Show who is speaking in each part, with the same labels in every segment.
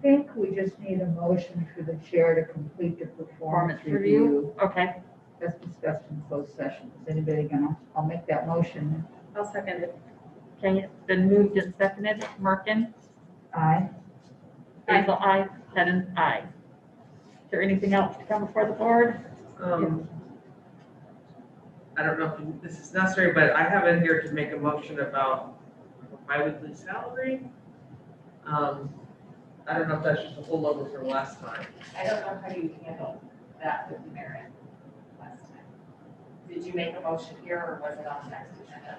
Speaker 1: think we just need a motion for the chair to complete the performance
Speaker 2: Performance review.
Speaker 1: review.
Speaker 2: Okay,
Speaker 1: That's discussed in closed session. Is anybody gonna, I'll make that motion.
Speaker 3: I'll second it.
Speaker 2: okay, it's been moved and seconded. Merkin,
Speaker 1: Aye.
Speaker 3: Aye.
Speaker 2: Basil, aye, Hidden, aye. Is there anything else to come before the board?
Speaker 4: Um, I don't know if you- this is necessary, but I have in here to make a motion about my weekly salary. Um, I don't know if that's just a holdover from last time.
Speaker 5: I don't know how you handled that with the merit last time. Did you make a motion here or was it on the next agenda?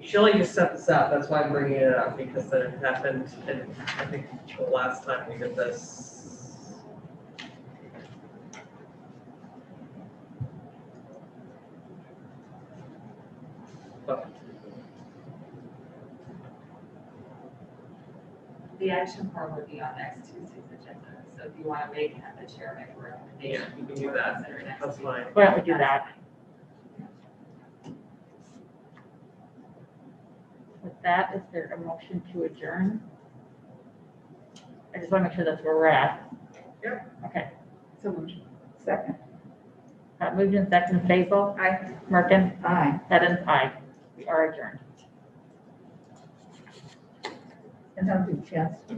Speaker 4: Shelley just set this up, that's why I'm bringing it up, because it happened, and I think the last time we did this. But
Speaker 5: The action form would be on next Tuesday's agenda, so if you want to make, have the chair make a recommendation.
Speaker 4: Yeah, we can do that.
Speaker 5: Consider next
Speaker 4: That's
Speaker 5: week.
Speaker 4: fine.
Speaker 2: Why don't we do that? With that, is there a motion to adjourn? I just want to make sure that's where we're at.
Speaker 4: Yep.
Speaker 2: Okay,
Speaker 3: So motion.
Speaker 1: Second.
Speaker 2: Uh, moved and seconded. Basil,
Speaker 3: Aye.
Speaker 2: Merkin,
Speaker 1: Aye.
Speaker 2: Hidden, aye. We are adjourned.
Speaker 1: And I'll do Chad's.